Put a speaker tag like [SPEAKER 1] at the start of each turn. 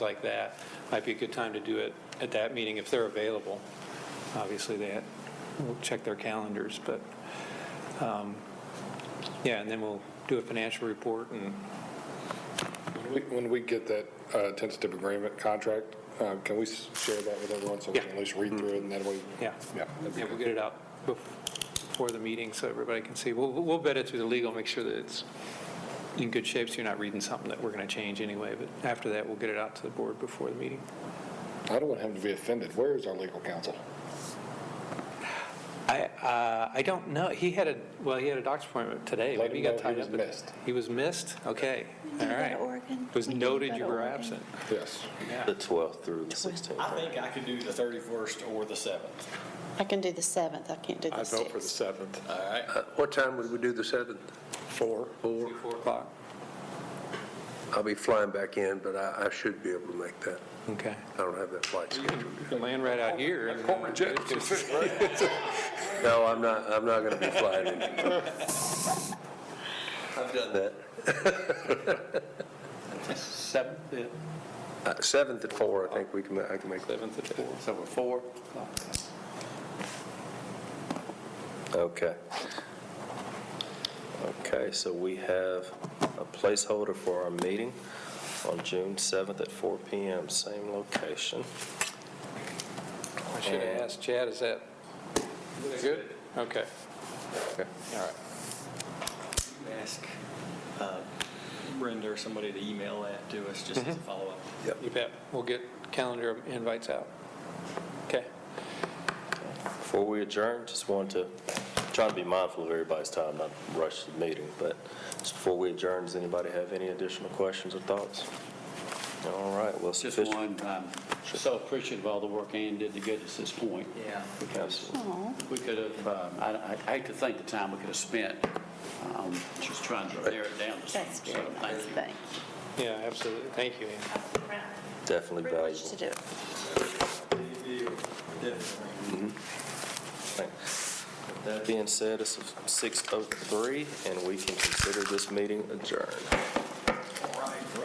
[SPEAKER 1] like that, might be a good time to do it at that meeting if they're available. Obviously, they, we'll check their calendars, but, um, yeah, and then we'll do a financial report and
[SPEAKER 2] When we- When we get that uh, tentative agreement contract, uh, can we s- share that with everyone so we can
[SPEAKER 1] Yeah.
[SPEAKER 2] at least read through it and that way?
[SPEAKER 1] Yeah.
[SPEAKER 2] Yeah. that'd be
[SPEAKER 1] Yeah, we'll
[SPEAKER 2] good.
[SPEAKER 1] get it out bef- before the meeting so everybody can see. We'll, we'll vet it through the legal, make sure that it's in good shape, so you're not reading something that we're going to change anyway. But after that, we'll get it out to the board before the meeting.
[SPEAKER 2] I don't want him to be offended. Where is our legal counsel?
[SPEAKER 1] I, uh, I don't know. He had a, well, he had a doctor's appointment today.
[SPEAKER 2] Let
[SPEAKER 1] Maybe he
[SPEAKER 2] him
[SPEAKER 1] got
[SPEAKER 2] know he
[SPEAKER 1] tied
[SPEAKER 2] was
[SPEAKER 1] up. with-
[SPEAKER 2] missed.
[SPEAKER 1] He was missed? Okay,
[SPEAKER 3] We need
[SPEAKER 1] all
[SPEAKER 3] to go to
[SPEAKER 1] right.
[SPEAKER 3] Oregon.
[SPEAKER 1] It was
[SPEAKER 3] We need to
[SPEAKER 1] noted
[SPEAKER 3] go
[SPEAKER 1] you
[SPEAKER 3] to
[SPEAKER 1] were
[SPEAKER 3] Oregon.
[SPEAKER 1] absent.
[SPEAKER 2] Yes.
[SPEAKER 4] The 12th through the 16th.
[SPEAKER 5] I think I could do the 31st or the 7th.
[SPEAKER 3] I can do the 7th, I can't do the 6th.
[SPEAKER 2] seventh.
[SPEAKER 5] All right.
[SPEAKER 6] Uh, What time would we do the 7th?
[SPEAKER 2] Four.
[SPEAKER 6] Four?
[SPEAKER 1] Four o'clock.
[SPEAKER 6] I'll be flying back in, but I, I should be able to make that.
[SPEAKER 1] Okay.
[SPEAKER 6] I don't have that flight scheduled.
[SPEAKER 1] You can land right out here. and then-
[SPEAKER 6] No, I'm not, I'm not going to be flying in. I've done that.
[SPEAKER 4] 7th,
[SPEAKER 6] Uh, 7th at 4, I think we can, ma- I can make that.
[SPEAKER 1] Seventh at four.
[SPEAKER 4] so we're 4. Okay. Okay, so we have a placeholder for our meeting on June 7th at 4 PM, same location.
[SPEAKER 1] I should have asked Chad, is that good? Okay.
[SPEAKER 6] Okay.
[SPEAKER 1] All right.
[SPEAKER 5] Ask uh, Brenda or somebody to email that to us just as a follow-up.
[SPEAKER 1] You bet. We'll get calendar invites out. Okay.
[SPEAKER 4] Before we adjourn, just wanted to, trying to be mindful of everybody's time, not rush the meeting, but just before we adjourn, does anybody have any additional questions or thoughts? All right, well,
[SPEAKER 7] Just
[SPEAKER 4] sufficient-
[SPEAKER 7] one, I'm so appreciative of all the work Ann did to get us this point.
[SPEAKER 5] Yeah.
[SPEAKER 7] Because
[SPEAKER 3] Aw.
[SPEAKER 7] we could have, um, I I hate to think the time we could have spent um, just trying to narrow it down to
[SPEAKER 3] Oh, That's
[SPEAKER 7] something.
[SPEAKER 3] very
[SPEAKER 7] So, thank
[SPEAKER 3] nice,
[SPEAKER 7] you.
[SPEAKER 3] thank
[SPEAKER 1] Yeah, absolutely. Thank you, Ann.
[SPEAKER 3] you.
[SPEAKER 4] Definitely
[SPEAKER 3] Privileged to
[SPEAKER 4] valuable.
[SPEAKER 3] do it.
[SPEAKER 4] Mm-hmm. With oh That being said, it's 6:03, and we can consider this meeting adjourned.